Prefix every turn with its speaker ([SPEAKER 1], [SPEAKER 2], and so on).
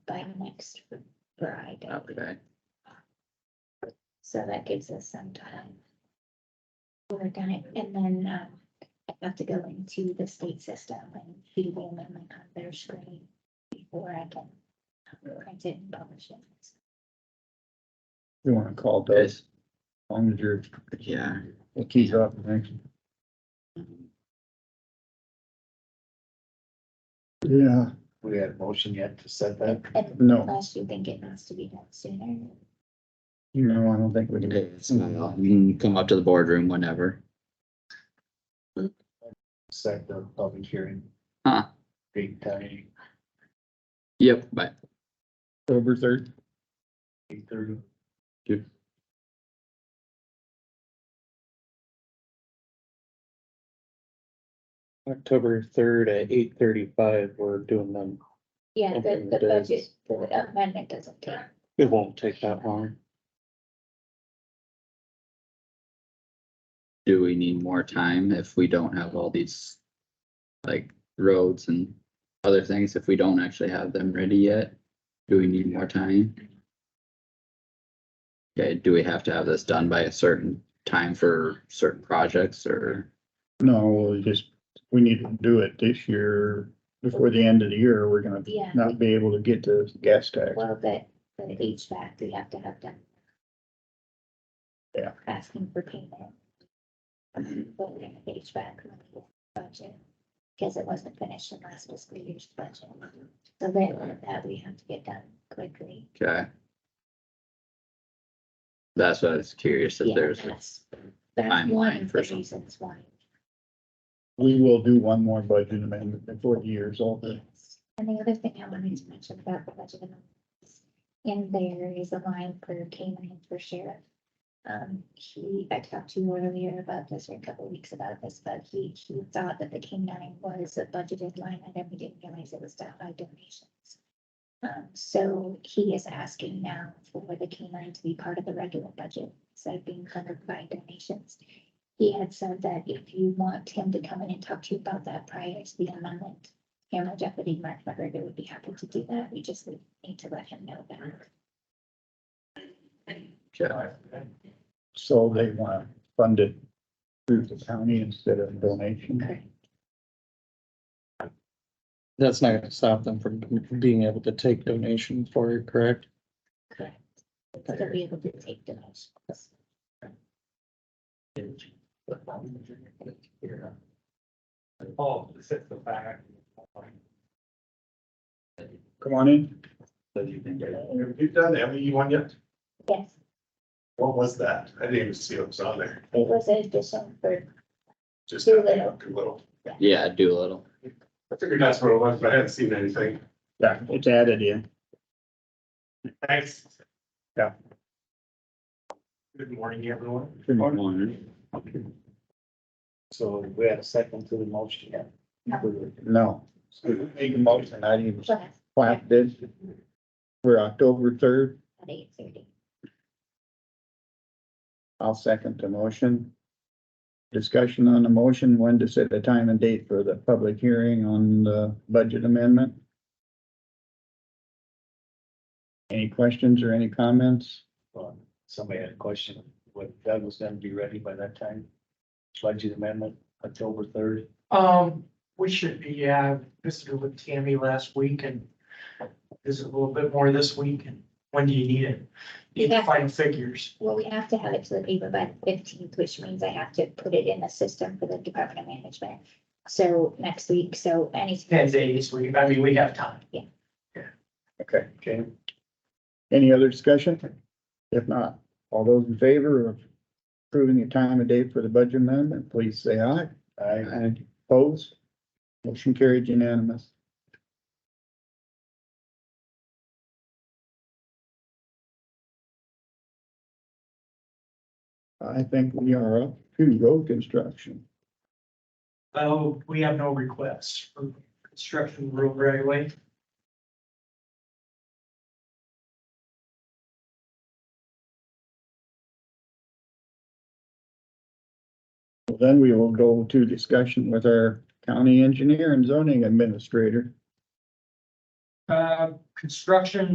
[SPEAKER 1] by next Friday.
[SPEAKER 2] Okay.
[SPEAKER 1] So that gives us some time. We're gonna, and then, um, I have to go into the state system and do the amendment on their screen before I can print it and publish it.
[SPEAKER 3] You wanna call Doug, as long as you're,
[SPEAKER 2] Yeah,
[SPEAKER 3] well, he's up next. Yeah,
[SPEAKER 4] We had a motion yet to set that.
[SPEAKER 1] And
[SPEAKER 3] no,
[SPEAKER 1] Unless you think it has to be done sooner.
[SPEAKER 3] no, I don't think we
[SPEAKER 2] it
[SPEAKER 3] can.
[SPEAKER 2] is. Well, We can come up to the boardroom whenever.
[SPEAKER 4] set the public hearing.
[SPEAKER 2] Huh.
[SPEAKER 4] Date time,
[SPEAKER 2] Yep, but
[SPEAKER 3] October third,
[SPEAKER 4] eight thirty.
[SPEAKER 5] October third at eight thirty-five, we're doing them.
[SPEAKER 1] Yeah, the, the budget amendment doesn't take
[SPEAKER 5] It won't take that long.
[SPEAKER 2] do we need more time if we don't have all these? Like roads and other things, if we don't actually have them ready yet, do we need more time? Okay, do we have to have this done by a certain time for certain projects or?
[SPEAKER 3] no, we'll just, we need to do it this year, before the end of the year, we're gonna
[SPEAKER 1] Yeah.
[SPEAKER 3] not be able to get the gas tax.
[SPEAKER 1] Well, the, the HVAC, we have to have done.
[SPEAKER 3] Yeah.
[SPEAKER 1] Asking for payment. But we have HVAC money budget, because it wasn't finished in last fiscal year's budget. So that, that we have to get done quickly.
[SPEAKER 2] Okay. That's what I was curious if
[SPEAKER 1] Yeah,
[SPEAKER 2] there's.
[SPEAKER 1] that's- That's one
[SPEAKER 2] timeline
[SPEAKER 1] of
[SPEAKER 2] for
[SPEAKER 1] the
[SPEAKER 2] some-
[SPEAKER 1] reasons why.
[SPEAKER 3] We will do one more budget amendment before the year's over.
[SPEAKER 1] Yes. And the other thing I wanted to mention about the budget amendments, in there is a line for canine for sheriff. Um, he, I talked to you earlier about this, or a couple of weeks about this, but he, he thought that the canine was a budgeted line item, we didn't realize it was down by donations. Um, so he is asking now for the canine to be part of the regular budget, instead of being covered by donations. He had said that if you want him to come in and talk to you about that prior to the amendment, him or Deputy Mark McGregor would be happy to do that. We just would need to let him know that.
[SPEAKER 2] Okay.
[SPEAKER 3] So they wanna fund it through the county instead of donation.
[SPEAKER 1] Correct.
[SPEAKER 5] That's not gonna stop them from being able to take donations for it, correct?
[SPEAKER 1] Correct. So they'll be able to take the motions.
[SPEAKER 4] Paul, set the back.
[SPEAKER 3] Come on in.
[SPEAKER 6] You've done the MEU one yet?
[SPEAKER 1] Yes,
[SPEAKER 6] What was that? I didn't even see what was on there.
[SPEAKER 1] it was an addition for,
[SPEAKER 6] Just
[SPEAKER 1] Too
[SPEAKER 6] a
[SPEAKER 1] little.
[SPEAKER 6] little.
[SPEAKER 2] Yeah, Doolittle.
[SPEAKER 6] I figured that's what it was, but I hadn't seen anything.
[SPEAKER 3] Yeah, it's added in.
[SPEAKER 6] Thanks.
[SPEAKER 3] Yeah.
[SPEAKER 6] Good morning, everyone.
[SPEAKER 3] Good morning.
[SPEAKER 2] One.
[SPEAKER 4] So we had a second to the motion yet.
[SPEAKER 3] No. Make a motion, I didn't even
[SPEAKER 1] class
[SPEAKER 3] clap this. For October third,
[SPEAKER 1] at eight thirty.
[SPEAKER 3] I'll second the motion. Discussion on the motion, when to set the time and date for the public hearing on the budget amendment. Any questions or any comments?
[SPEAKER 4] Um, Somebody had a question, what Doug was gonna be ready by that time? Budget amendment, October third.
[SPEAKER 7] Um, we should be, yeah, I visited with Tammy last week and visit a little bit more this week and when do you need it? Need
[SPEAKER 1] Yeah.
[SPEAKER 7] to find figures.
[SPEAKER 1] Well, we have to have it to the paper by the fifteenth, which means I have to put it in the system for the Department of Management. So next week, so any,
[SPEAKER 7] Ten days, we, I mean, we have time.
[SPEAKER 3] Okay.
[SPEAKER 4] Okay.
[SPEAKER 3] Any other discussion? If not, all those in favor of approving the time and date for the budget amendment, please say aye.
[SPEAKER 4] I,
[SPEAKER 3] Aye. Opposed? Motion carried unanimous. I think we are up to road construction.
[SPEAKER 7] Oh, we have no requests for construction of road right away.
[SPEAKER 3] Well, Then we will go to discussion with our county engineer and zoning administrator.
[SPEAKER 7] Uh, construction